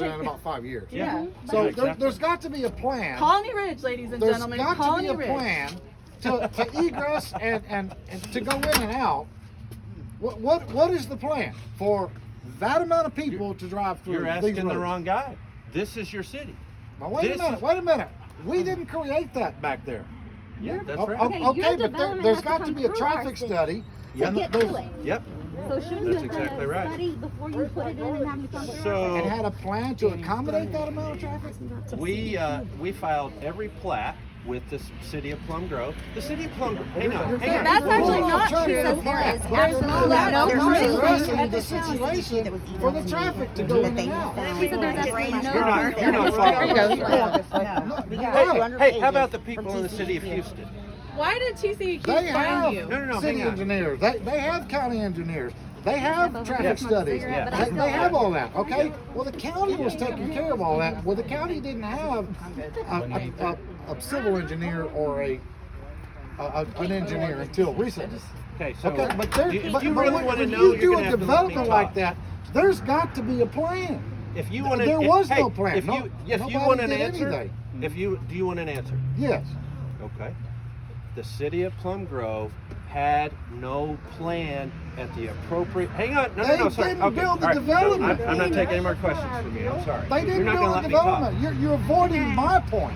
in about five years. Yeah. So there, Exactly. there's got to be a plan. Colony Ridge, ladies and There's gentlemen. got Colony to be a Ridge. plan to, to egress and, and, and to go in and out. What, what what is the plan for that amount of people to drive through? You're these asking the roads? wrong guy. This is your city. Now wait this a minute. is- Wait a minute. We didn't create that back there. Yeah, that's O- right. o- Okay, your Oh, okay, but there, development there's has to got to come be a through our traffic city. study. Yeah. to get those- to it. Yep. So shouldn't you That's have done exactly right. a study before you put it in and have you come through? So- and had a plan to accommodate that amount of traffic? We uh, we filed every plat with the s- city of Plum Grove. The city of Plum Grove. Hang on. Hang on. That's actually Well, not trying true. to There plan. is Well, absolutely that's no not true. addressing the There's no situation that was for the traffic to go in and out. She said there's actually no- You're not. You're not following. There you go. Hey, hey, how about the people in the city of Houston? Why did TCEQ They find have you? No, no, no, city hang on. engineers, they, they have county engineers, they have traffic studies, Yeah. they, they have all that, okay? Well, the county was taking care of all that, well, the county didn't have a, a, a, a civil engineer or a, a- a, an engineer until recently. Okay, so Okay, but there, do, do but, but you really when want to when you know? are do gonna a have to let me development like talk. that, there's got to be a plan. If you want to, There if, was hey, no plan. If No- you, if you nobody want an did answer, anything. if you do you want an answer? Yes, Okay. The city of Plum Grove had no plan at the appropriate. Hang on. No, They no, no. Sorry. didn't okay. build the all right, development. I'm, I'm not taking any more questions from you. I'm sorry. they didn't You're not build gonna the let me talk. development, you're, you're avoiding my point.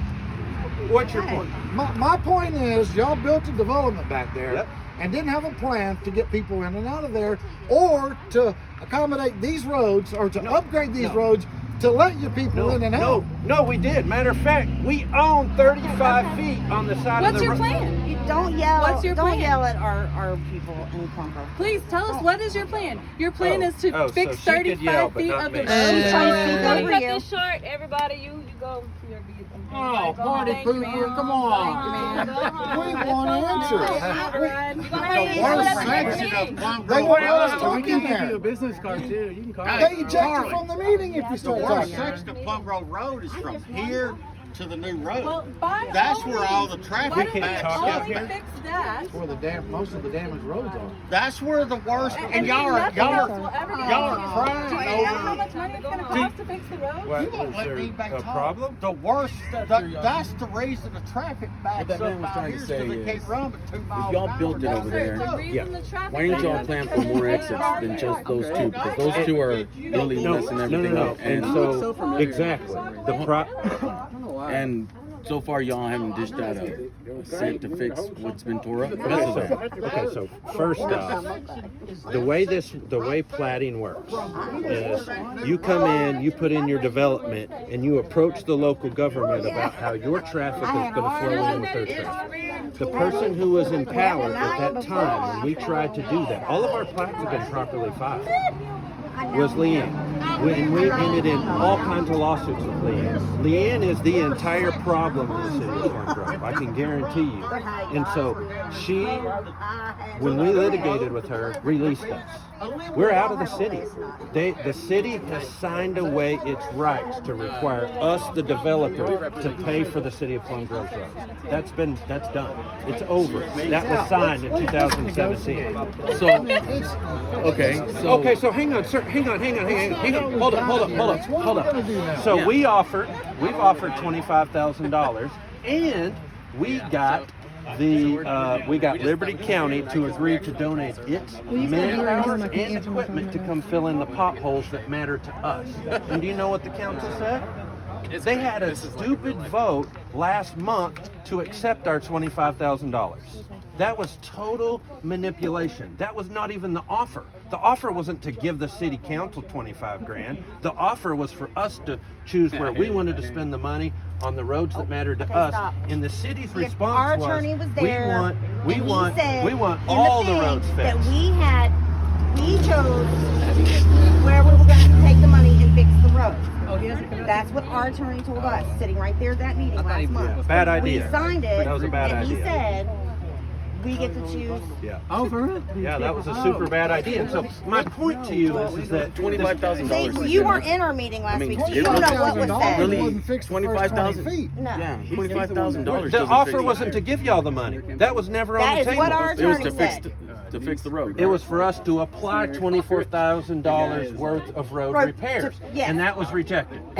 What's your point? My, my point is, y'all built a development back there Yep. and didn't have a plan to get people in and out of there or to accommodate these roads or to upgrade these no. roads to let your people No, in and no, out. no, we did. Matter of fact, we own 35 feet on the side of What's the your road. plan? Don't yell. What's your don't plan? yell at our, our people in Plumber. Please tell us what is your plan? Your plan Oh, is to oh, so fix she could 35 yell, but feet not of the me. road. She's trying to speak Don't over cut you. this short, everybody. You you go. You're, you, Oh, go party home. pooper, Thank you, come Mom. on. Thank you, Mom. Go home. We Let's want go home. answers. Hot We- run. You gonna The have to worst whatever you section need. They want us Well, we talking can give you a there. business card too. You can call. They eject you from the meeting if you start Our talking. section of Plum Grove Road is from here to the new Well, road. by That's all where means, all the Why traffic don't we can't backs talk up only about here. fix that? Where the dam, most of the damaged roads are. That's where the worst, And, and y'all are, nothing y'all else will are, ever be y'all done. are Do crying you know how over. E. much money it's going to cost to fix the road? What, You won't is let there me back a talk. problem? The worst, that- that's the reason the traffic backs What that man up was out trying here so to say they is, can't run but two miles an y'all hour built it down over the there, road. The reason the traffic Why didn't y'all backup is plan for more because it's exits hard than to just park. those two? Because those two are really messing everything up. And so so, familiar. exactly. The pro- And and so far, y'all haven't dished out a a cent to fix what's been tore up. Okay, so, okay, so first off, the way this, the way plating works is you come in, you put in your development, and you approach the local government about how your traffic is gonna flow in with their traffic. The person who was in power at that time, when we tried to do that, all of our plats have been properly filed, was Leanne. We- And we ended in all kinds of lawsuits with Leanne. Leanne is the entire problem in the city of Corn Grove, I can guarantee you. And so she when we litigated with her, released us. We're out of the city. They, the city has signed away its rights to require us, the developer, to pay for the city of Plum Grove roads. That's been, that's done. It's over. That was signed in 2017. So, okay, so. Okay, so hang on, sir. Hang on, hang on, hang on, hang on. Hold up, hold up, hold up, hold up. So we offered, we've offered twenty-five thousand dollars, and we got the, uh, we got Liberty County to agree to donate its manpower and equipment to come fill in the potholes that matter to us. And do you know what the council said? They had a stupid vote last month to accept our twenty-five thousand dollars. That was total manipulation. That was not even the offer. The offer wasn't to give the city council twenty-five grand. The offer was for us to choose where we wanted to spend the money on the roads that mattered to okay, us. stop. And the city's If our response was, attorney was we there, want, we and he want, said we want in all the thing roads That fixed. we had, we chose where we were going to take the money and fix the road. he hasn't That's what our attorney told us, sitting right there at that meeting last month. Bad We idea. signed it, That was a bad and he idea. said, we get to choose. Yeah. Oh, for real? Yeah, that was a Oh. super bad idea. And so my point to you is, is that Twenty-five thousand See, dollars. you weren't in our meeting last mean, week, so it you don't know what was $25,000 said. Really? Wasn't fixed the first 25,000? 20 feet. No. Yeah, twenty-five thousand dollars. the offer wasn't to give y'all the money. That was never on That the is table. what our It was attorney to fix, said. to fix the road. It was for us to apply twenty-four thousand dollars worth of road Road- repairs, yes. and that was rejected.